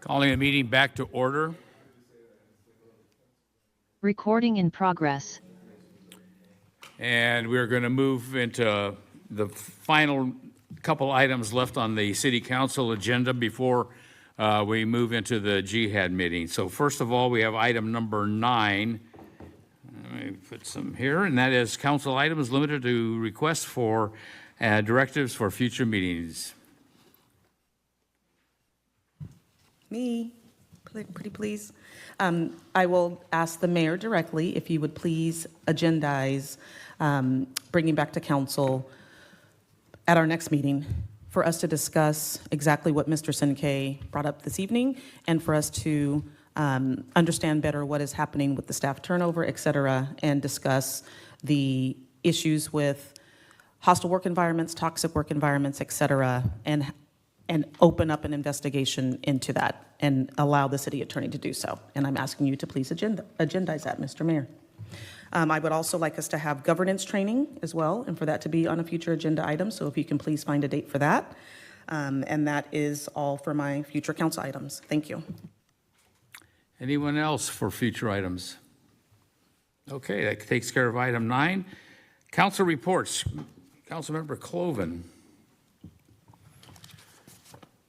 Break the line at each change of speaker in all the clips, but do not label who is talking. Calling the meeting back to order.
Recording in progress.
And we're going to move into the final couple items left on the city council agenda before uh, we move into the jihad meeting. So first of all, we have item number nine. Let me put some here, and that is council items limited to requests for uh, directives for future meetings.
Me, pl- pretty please. Um, I will ask the mayor directly if you would please agendize um, bringing back to council at our next meeting for us to discuss exactly what Mr. Sinkay brought up this evening and for us to um, understand better what is happening with the staff turnover, et cetera, and discuss the issues with hostile work environments, toxic work environments, et cetera, and, and open up an investigation into that and allow the city attorney to do so. And I'm asking you to please agenda, agendize that, Mr. Mayor. Um, I would also like us to have governance training as well, and for that to be on a future agenda item, so if you can please find a date for that. Um, And that is all for my future council items. Thank you.
Anyone else for future items? Okay, that takes care of item nine. Council reports. Councilmember Cloven.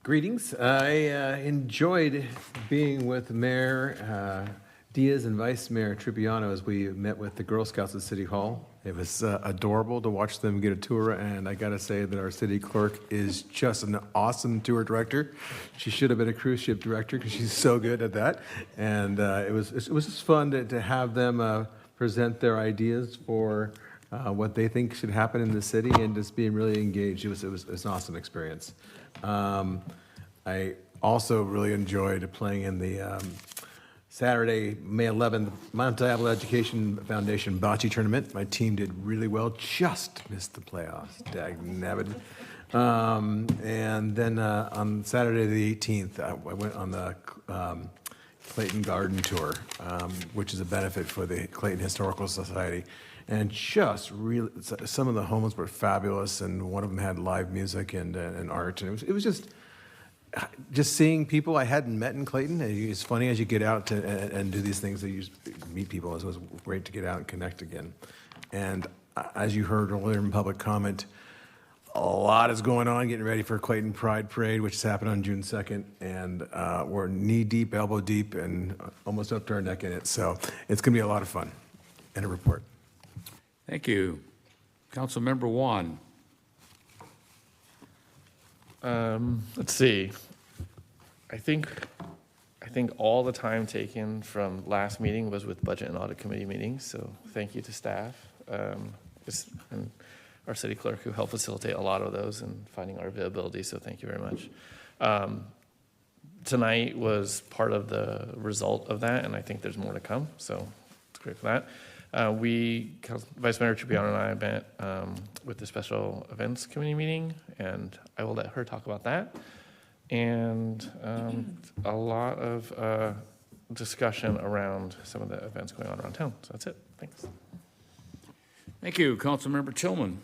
Greetings. I uh, enjoyed being with Mayor uh, Diaz and Vice Mayor Tripiano as we met with the Girl Scouts at City Hall. It was uh, adorable to watch them get a tour, and I gotta say that our city clerk is just an awesome tour director. She should have been a cruise ship director because she's so good at that. And uh, it was it was just fun to, to have them uh, present their ideas for uh, what they think should happen in the city and just being really engaged. It was, it was, it was an awesome experience. Um, I also really enjoyed playing in the um, Saturday, May 11th, Mount Diablo Education Foundation bocce tournament. My team did really well, just missed the playoffs. Dag nabbit. Um, and then uh, on Saturday the 18th, I, I went on the um, Clayton Garden Tour, um, which is a benefit for the Clayton Historical Society. And just really, s- some of the homes were fabulous, and one of them had live music and, uh, and art. And it was, it was just, just seeing people I hadn't met in Clayton. and It's funny as you get out to, and, and do these things that you meet people. It was great to get out and connect again. And a- as you heard earlier in public comment, a lot is going on, getting ready for Clayton Pride Parade, which is happening on June 2nd. And uh, we're knee deep, elbow deep, and almost up to our neck in it. So it's going to be a lot of fun. And a report.
Thank you. Councilmember Juan.
Um, let's see. I think, I think all the time taken from last meeting was with budget and audit committee meetings, so thank you to staff. um, it's- And our city clerk who helped facilitate a lot of those and finding our availability, so thank you very much. Um, Tonight was part of the result of that, and I think there's more to come, so it's great for that. Uh, We, Council- Vice Mayor Tripiano and I met um, with the Special Events Committee meeting, and I will let her talk about that. And um, a lot of uh, discussion around some of the events going on around town. So that's it. Thanks.
Thank you. Councilmember Tillman.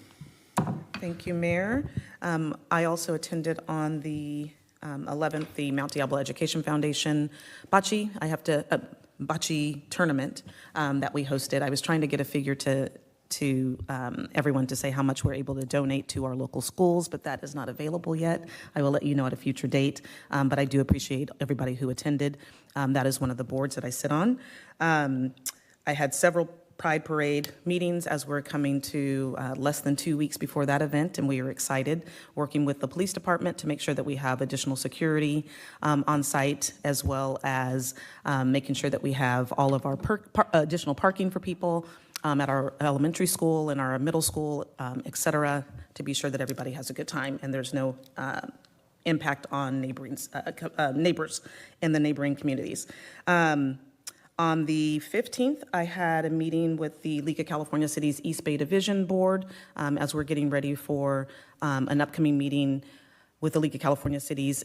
Thank you, Mayor. Um, I also attended on the um, 11th, the Mount Diablo Education Foundation bocce, I have to, uh, bocce tournament um, that we hosted. I was trying to get a figure to, to um, everyone to say how much we're able to donate to our local schools, but that is not available yet. I will let you know at a future date, Um, but I do appreciate everybody who attended. Um, That is one of the boards that I sit on. Um, I had several Pride Parade meetings as we're coming to uh, less than two weeks before that event, and we are excited, working with the police department to make sure that we have additional security um, on site, as well as um, making sure that we have all of our per- par- additional parking for people um, at our elementary school and our middle school, um, et cetera, to be sure that everybody has a good time and there's no uh, impact on neighboring, uh, co- uh, neighbors in the neighboring communities. Um, on the 15th, I had a meeting with the League of California Cities East Bay Division Board um, as we're getting ready for um, an upcoming meeting with the League of California Cities